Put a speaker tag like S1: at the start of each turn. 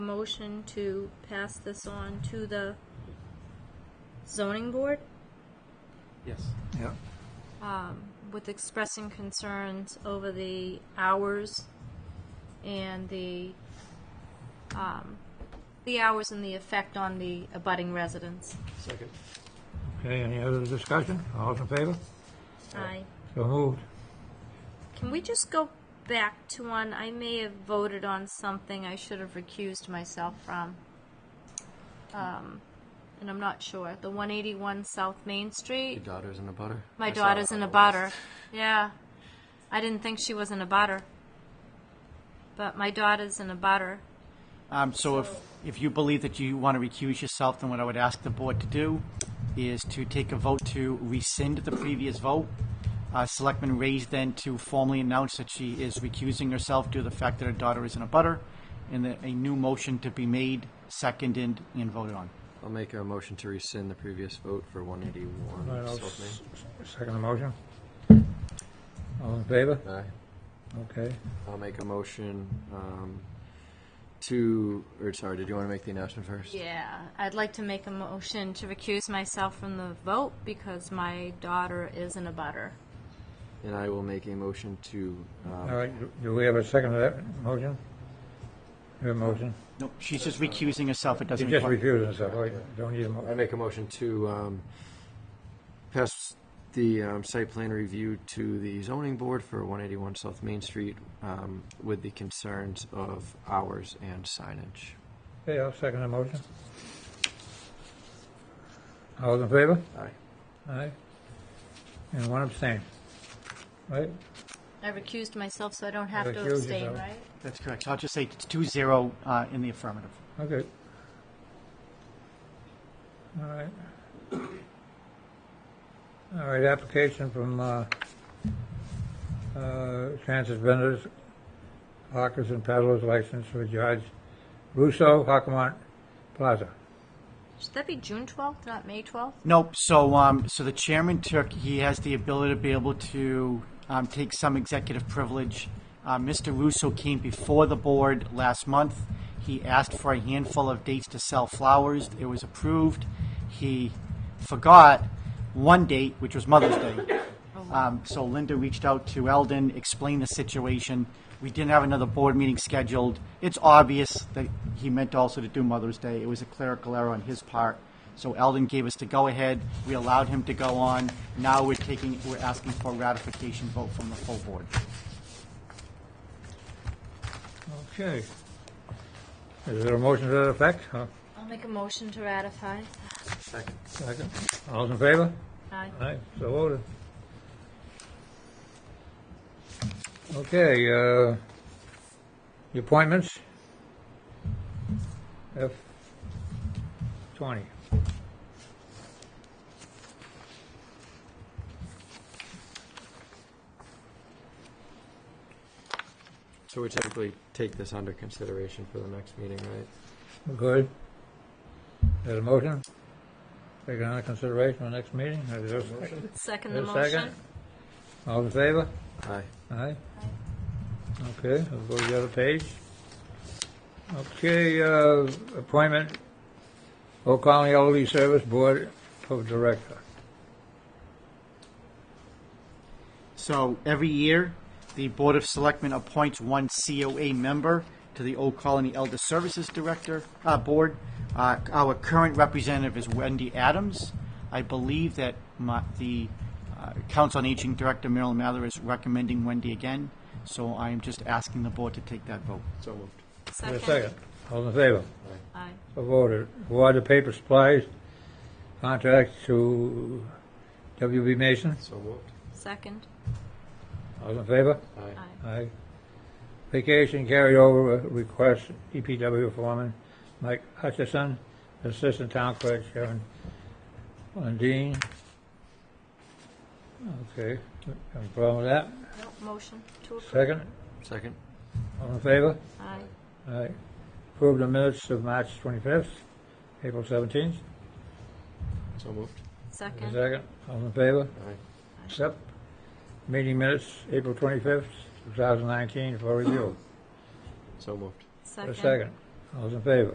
S1: motion to pass this on to the zoning board
S2: Yes.
S3: Yeah,
S1: with expressing concerns over the hours and the, um, the hours and the effect on the abutting residents.
S2: Second.
S3: okay, any other discussion? All in favor?
S1: Aye.
S3: So moved.
S1: Can we just go back to one? I may have voted on something I should have recused myself from. Um, and I'm not sure. The 181 South Main Street.
S2: Your daughter's in a butter?
S1: My
S2: I saw
S1: daughter's
S2: that
S1: in a
S2: on the list.
S1: butter. Yeah. I didn't think she was in a butter. But my daughter's in a butter.
S4: Um, so if, if you believe that you want to recuse yourself, then what I would ask the board to do is to take a vote to rescind the previous vote. Uh, Selectman Ray's then to formally announce that she is recusing herself due to the fact that her daughter is in a butter, and that a new motion to be made, seconded, and voted on.
S2: I'll make a motion to rescind the previous vote for one eighty-one.
S3: All right, I'll s- Second the motion. All in favor?
S2: Aye.
S3: Okay.
S2: I'll make a motion, um, to, or sorry, did you want to make the announcement first?
S1: Yeah. I'd like to make a motion to recuse myself from the vote because my daughter is in a butter.
S2: And I will make a motion to,
S3: All
S2: um,
S3: right, do- do we have a second to that motion? Your motion?
S4: No, she's just recusing herself. It
S3: You
S4: doesn't
S3: just
S4: require.
S3: refused and stuff, right? Don't need a
S2: I
S3: mo,
S2: make a motion to, um, pass the, um, site plan review to the zoning board for one eighty-one South Main Street, um, with the concerns of hours and signage.
S3: okay, I'll second the motion. All in favor?
S2: Aye.
S3: Aye. And one abstain. Right?
S1: I recused myself so I don't have to
S3: Recuse
S1: abstain,
S3: yourself.
S1: right?
S4: That's correct. So I'll just say it's two zero uh, in the affirmative.
S3: Okay. All right. All right, application from, uh, uh, transit vendors, hawkers and peddlers license for George Russo, Hockamont Plaza.
S1: Should that be June 12th, not May 12th?
S4: Nope. So, um, so the chairman took, he has the ability to be able to um, take some executive privilege. Uh, Mr. Russo came before the board last month. He asked for a handful of dates to sell flowers. It was approved. He forgot one date, which was Mother's Day. Um, so Linda reached out to Eldon, explained the situation. We didn't have another board meeting scheduled. It's obvious that he meant also to do Mother's Day. It was a clerical error on his part. So Eldon gave us the go-ahead. We allowed him to go on. Now we're taking, we're asking for a ratification vote from the full board.
S3: Okay. Is there a motion to that effect? Huh?
S1: I'll make a motion to ratify.
S2: Second.
S3: Second. All's in favor?
S1: Aye.
S3: Aye, so voted. Okay, uh, the appointments. F twenty.
S2: So we typically take this under consideration for the next meeting, right?
S3: Good. There's a motion? Take it under consideration for the next meeting? Is there a second?
S1: Second the
S3: Is there a
S1: motion.
S3: second? All in favor?
S2: Aye.
S3: Aye. Okay, we'll go to the other page. Okay, uh, appointment, Oak Colony Elderly Service Board of Director.
S4: So every year, the Board of Selectmen appoints one COA member to the Old Colony Elder Services Director, uh, Board. Uh, our current representative is Wendy Adams. I believe that my, the uh, Council on Aging Director, Marilyn Mather, is recommending Wendy again. So I am just asking the board to take that vote.
S2: So moved.
S3: Is there a second? All in favor?
S1: Aye.
S3: So voted. Award of paper supplies contract to WB Mason.
S2: So moved.
S1: Second.
S3: All in favor?
S2: Aye.
S3: Aye. Vacation carryover request, EPW foreman Mike Hutchison, Assistant Town Clerk Sharon Lundeen. Okay, any problem with that?
S1: Nope, Motion to approve.
S3: Second,
S2: Second.
S3: all in favor?
S1: Aye.
S3: Aye. Approve the minutes of March 25th, April 17th.
S2: So moved.
S1: Second.
S3: Second, all in favor?
S2: Aye.
S3: Accept. Meeting minutes, April 25th, 2019, for review.
S2: So moved.
S3: A second, All those in favor?